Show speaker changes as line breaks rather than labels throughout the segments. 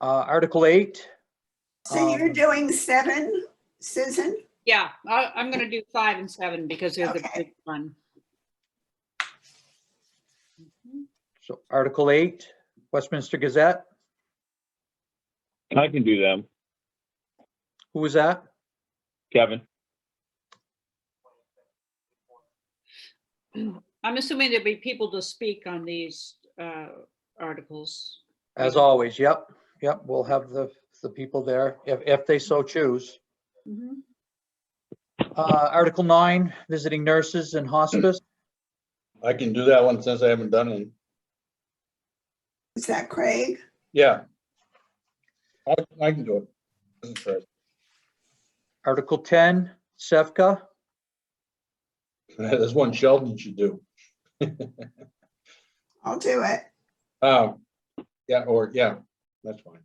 Uh, Article eight,
So you're
Um,
doing seven, Susan?
Yeah, I, I'm gonna do five and seven because they're the
Okay.
big one.
so Article eight, Westminster Gazette,
I can do them.
who was that?
Kevin,
I'm assuming there'll be people to speak on these, uh, articles.
As always, yep, yep, we'll have the, the people there if, if they so choose.
Mhm.
Uh, Article nine, visiting nurses and hospice.
I can do that one since I haven't done it.
Is that Craig?
Yeah. I, I can do it. Doesn't hurt.
Article ten, SEVCA.
There's one Sheldon should do.
I'll do it.
Um, yeah, or, yeah, that's fine.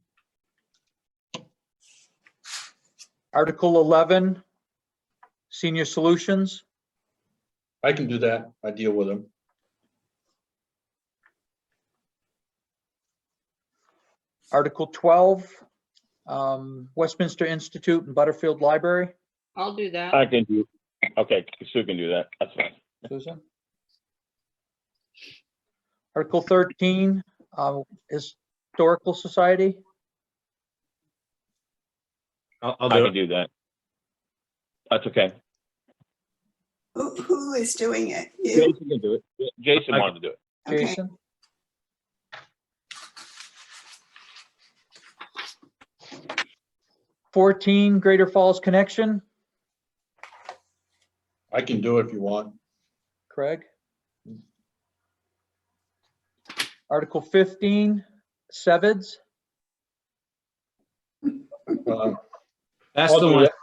Article eleven, senior solutions.
I can do that. I deal with them.
Article twelve, um, Westminster Institute and Butterfield Library.
I'll do
I
that.
can do, okay, Sue can do that, that's fine.
Susan? Article thirteen, um, Historical Society.
I'll, I'll
I
do
can
it.
do that. That's okay.
Who, who is doing it? You?
Jason can do it. Jason
I-
wanted to do it.
Okay,
Jason? Fourteen, Greater Falls Connection,
I can do it if you want.
Craig. Article fifteen, Sevids,
Uh,
That's
I'll
the
do
one.
that.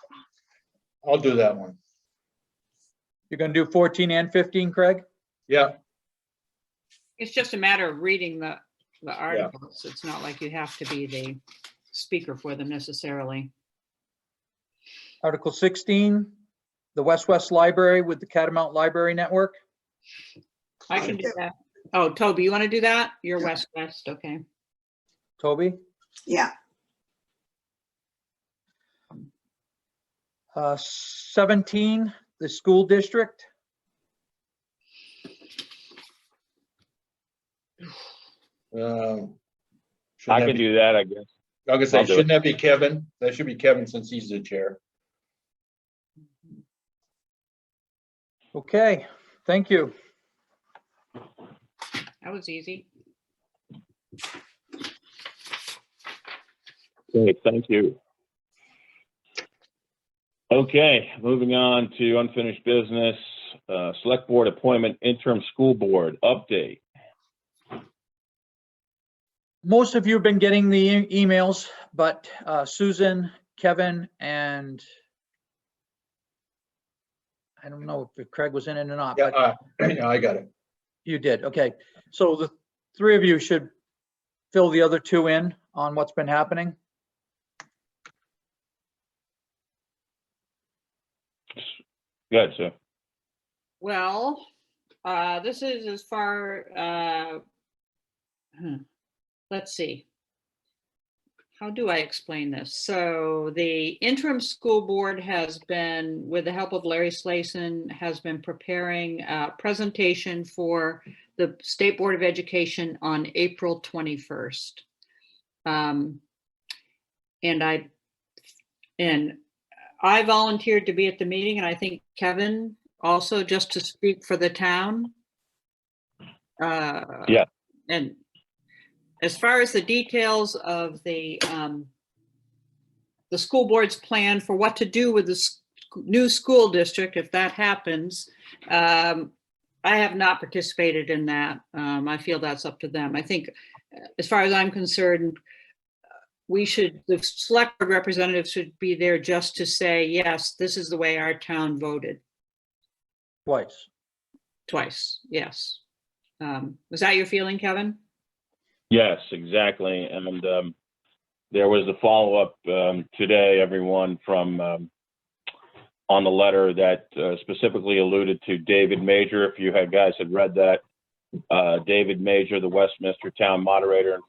I'll do that one.
you're gonna do fourteen and fifteen, Craig?
Yeah,
It's just a matter of reading the, the articles. It's not like you have to be the speaker for them necessarily.
Article sixteen, the West West Library with the Catamount Library Network.
I can do that. Oh, Toby, you want to do that? You're West West, okay.
Toby?
Yeah,
Uh, 17, the school district.
um. should
I
that
can
be-
do that, I guess.
I was gonna
I'll do
say,
it.
shouldn't that be Kevin? That should be Kevin since he's the chair.
Okay, thank you.
That was easy.
Great, thank you. Okay, moving on to unfinished business, uh, select board appointment interim school board update.
Most of you have been getting the e- emails, but uh, Susan, Kevin, and I don't know if Craig was in it or not,
Yeah,
but
uh, yeah, I got it.
you did. Okay. So the three of you should fill the other two in on what's been happening.
Good, so,
Well, uh, this is as far, uh, hmm, let's see. How do I explain this? So the interim school board has been, with the help of Larry Slayson, has been preparing a presentation for the State Board of Education on April 21st. Um, And I, and I volunteered to be at the meeting and I think Kevin also just to speak for the town. Uh,
Yeah.
And as far as the details of the, um, the school board's plan for what to do with this new school district, if that happens, um, I have not participated in that. Um, I feel that's up to them. I think, uh, as far as I'm concerned, we should, the select board representatives should be there just to say, yes, this is the way our town voted
Twice.
twice, yes. Um, was that your feeling, Kevin?
yes, exactly, and, um, there was a follow-up, um, today, everyone from, um, on the letter that uh, specifically alluded to David Major, if you had guys had read that. Uh, David Major, the Westminster Town Moderator and